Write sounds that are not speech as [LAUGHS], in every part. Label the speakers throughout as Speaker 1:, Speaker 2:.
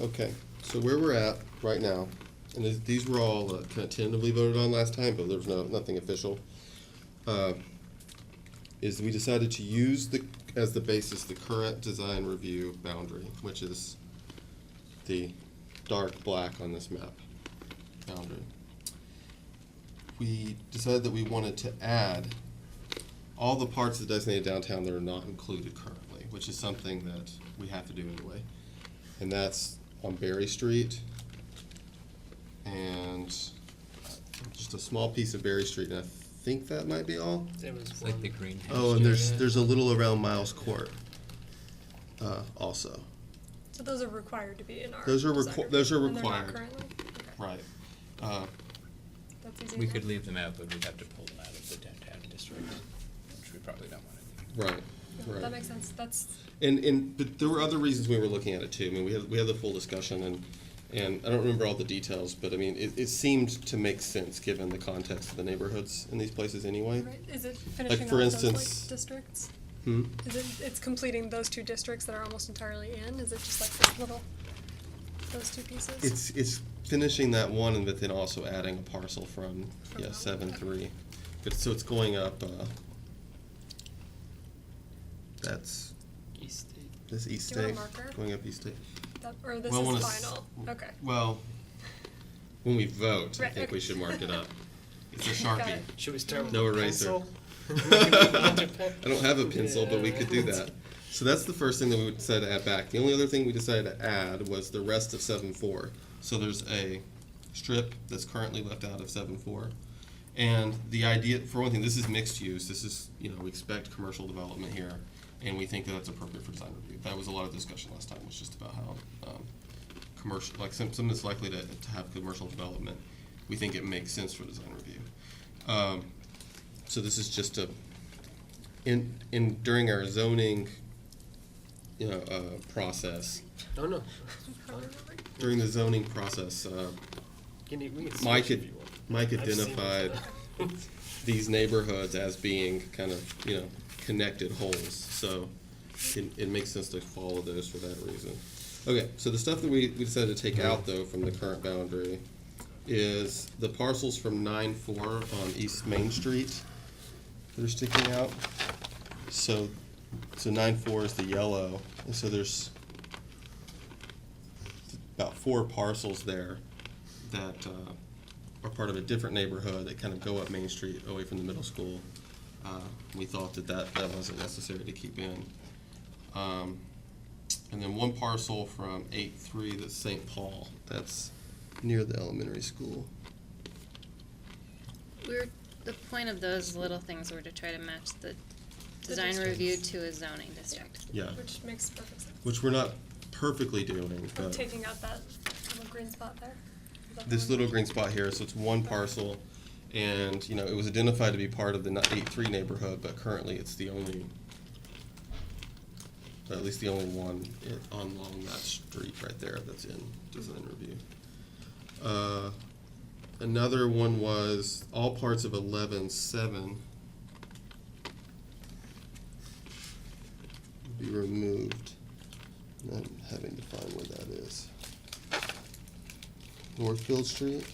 Speaker 1: Okay, so where we're at right now, and these- these were all uh, kind of tentatively voted on last time, but there was no, nothing official, uh, is we decided to use the, as the basis, the current design review boundary, which is the dark black on this map boundary. We decided that we wanted to add all the parts of the designated downtown that are not included currently, which is something that we have to do anyway. And that's on Berry Street. And just a small piece of Berry Street, and I think that might be all.
Speaker 2: There was
Speaker 3: It's like the
Speaker 2: one,
Speaker 3: greenhouse.
Speaker 1: Oh, and there's,
Speaker 3: area.
Speaker 1: there's a little around Miles Court, uh, also.
Speaker 4: So those are required to be in our.
Speaker 1: Those are requi-
Speaker 4: design
Speaker 1: those are
Speaker 4: review, and they're not
Speaker 1: required.
Speaker 4: currently? Okay,
Speaker 1: Right. Uh,
Speaker 4: That's easy
Speaker 3: We
Speaker 4: enough.
Speaker 3: could leave them out, but we'd have to pull them out of the downtown district, which we probably don't want to do.
Speaker 1: right,
Speaker 4: No, That
Speaker 1: right.
Speaker 4: makes sense, that's,
Speaker 1: And, and, but there were other reasons we were looking at it too. I mean, we had, we had the full discussion and, and I don't remember all the details, but I mean, it, it seemed to make sense given the context of the neighborhoods in these places anyway.
Speaker 4: right, is it finishing off
Speaker 1: for
Speaker 4: those
Speaker 1: instance-
Speaker 4: like districts?
Speaker 1: Hmm?
Speaker 4: Is it, it's completing those two districts that are almost entirely in, is it just like this little, those two pieces?
Speaker 1: It's, it's finishing that one and but then also adding a parcel from,
Speaker 4: From
Speaker 1: yeah,
Speaker 4: that
Speaker 1: seven
Speaker 4: one.
Speaker 1: three. But, so it's going up, uh, that's,
Speaker 2: East State.
Speaker 1: that's East
Speaker 4: Do you
Speaker 1: State,
Speaker 4: want a marker?
Speaker 1: going up East State.
Speaker 4: That- Or this
Speaker 1: Well, I
Speaker 4: is
Speaker 1: wanna s-
Speaker 4: final, okay.
Speaker 1: Well, when we vote, I
Speaker 4: Right,
Speaker 1: think we
Speaker 4: okay.
Speaker 1: should mark it up. It's a
Speaker 4: [LAUGHS] Got
Speaker 1: Sharpie.
Speaker 4: it.
Speaker 2: Should we start with
Speaker 1: No
Speaker 2: a
Speaker 1: eraser.
Speaker 2: pencil?
Speaker 1: [LAUGHS] I don't have a pencil, but we could do
Speaker 2: Yeah.
Speaker 1: that. So that's the first thing that we decided to add back. The only other thing we decided to add was the rest of seven four. So there's a strip that's currently left out of seven four. And the idea, for one thing, this is mixed use. This is, you know, we expect commercial development here, and we think that that's appropriate for design review. That was a lot of discussion last time, was just about how um, commercial, like some, something that's likely to, to have commercial development. We think it makes sense for design review. Um, so this is just a in in during our zoning, you know, uh, process
Speaker 2: No, no.
Speaker 4: Probably remembering.
Speaker 1: during the zoning process, uh,
Speaker 2: Can you, we can
Speaker 1: Mike
Speaker 2: switch if
Speaker 1: had-
Speaker 2: you want.
Speaker 1: Mike
Speaker 2: I've seen it.
Speaker 1: identified these neighborhoods as being kind of you know connected holes. So it, it makes sense to follow those for that reason. Okay, so the stuff that we, we decided to take out though from the current boundary is the parcels from nine four on East Main Street that are sticking out. So so nine four is the yellow, and so there's about four parcels there that uh, are part of a different neighborhood that kind of go up Main Street away from the middle school. Uh, We thought that that, that wasn't necessary to keep in. Um, And then one parcel from eight three that's St. Paul, that's near the elementary school.
Speaker 5: We were, the point of those little things were to try to match the design
Speaker 4: districts.
Speaker 5: review to a zoning district.
Speaker 1: Yeah,
Speaker 4: Which makes perfect sense.
Speaker 1: which we're not perfectly doing,
Speaker 4: I'm
Speaker 1: but
Speaker 4: taking out that little green spot there. Is that the
Speaker 1: this
Speaker 4: one?
Speaker 1: little green spot here, so it's one parcel. And, you know, it was identified to be part of the eight three neighborhood, but currently it's the only at least the only one i- on along that street right there that's in design review. Uh, Another one was all parts of eleven seven be removed. And I'm having to find where that is. Northfield Street?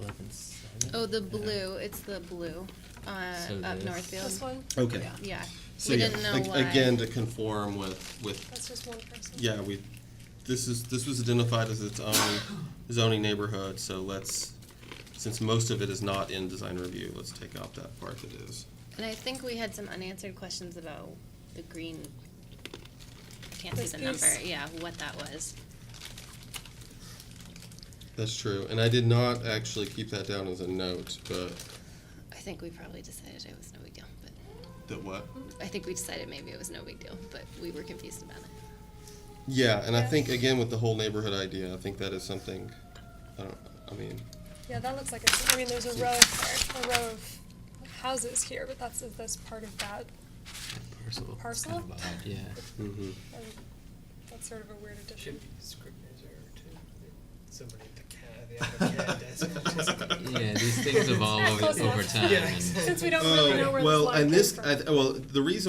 Speaker 3: Eleven seven?
Speaker 5: Oh, the blue, it's the blue,
Speaker 3: So
Speaker 5: uh, up
Speaker 3: this-
Speaker 5: Northfield.
Speaker 4: This one,
Speaker 1: Okay.
Speaker 4: Yeah.
Speaker 5: Yeah,
Speaker 1: So
Speaker 5: we
Speaker 1: yeah,
Speaker 5: didn't know
Speaker 1: ag-
Speaker 5: why.
Speaker 1: Again, to conform with, with
Speaker 4: that's just one person.
Speaker 1: Yeah, we, this is, this was identified as its own zoning neighborhood, so let's, since most of it is not in design review, let's take out that part that is.
Speaker 5: And I think we had some unanswered questions about the green, I can't see
Speaker 4: This
Speaker 5: the number,
Speaker 4: piece.
Speaker 5: yeah, what that was.
Speaker 1: That's true, and I did not actually keep that down as a note, but.
Speaker 5: I think we probably decided it was no big deal, but,
Speaker 1: That what?
Speaker 5: I think we decided maybe it was no big deal, but we were confused about it.
Speaker 1: Yeah, and I
Speaker 4: Yeah.
Speaker 1: think, again, with the whole neighborhood idea, I think that is something, I don't, I mean,
Speaker 4: Yeah, that looks like it's, I mean, there's a row of, a row of houses here, but that's, is this part of that?
Speaker 3: Parcel.
Speaker 4: Parcel?
Speaker 3: Kind of odd, Yeah.
Speaker 1: mhm.
Speaker 4: Um, That's sort of a weird addition.
Speaker 2: [LAUGHS] Should be a scrivener's error too. Somebody at the cat, the other cat desk.
Speaker 3: [LAUGHS] Yeah, these things evolve
Speaker 2: [LAUGHS]
Speaker 4: Close
Speaker 3: over
Speaker 4: enough.
Speaker 3: time
Speaker 2: Yeah,
Speaker 3: and. Oh,
Speaker 2: exactly.
Speaker 4: Since we don't really know where
Speaker 1: Oh,
Speaker 4: this line
Speaker 1: Well, and
Speaker 4: came
Speaker 1: this,
Speaker 4: from.
Speaker 1: I, th- well, the reason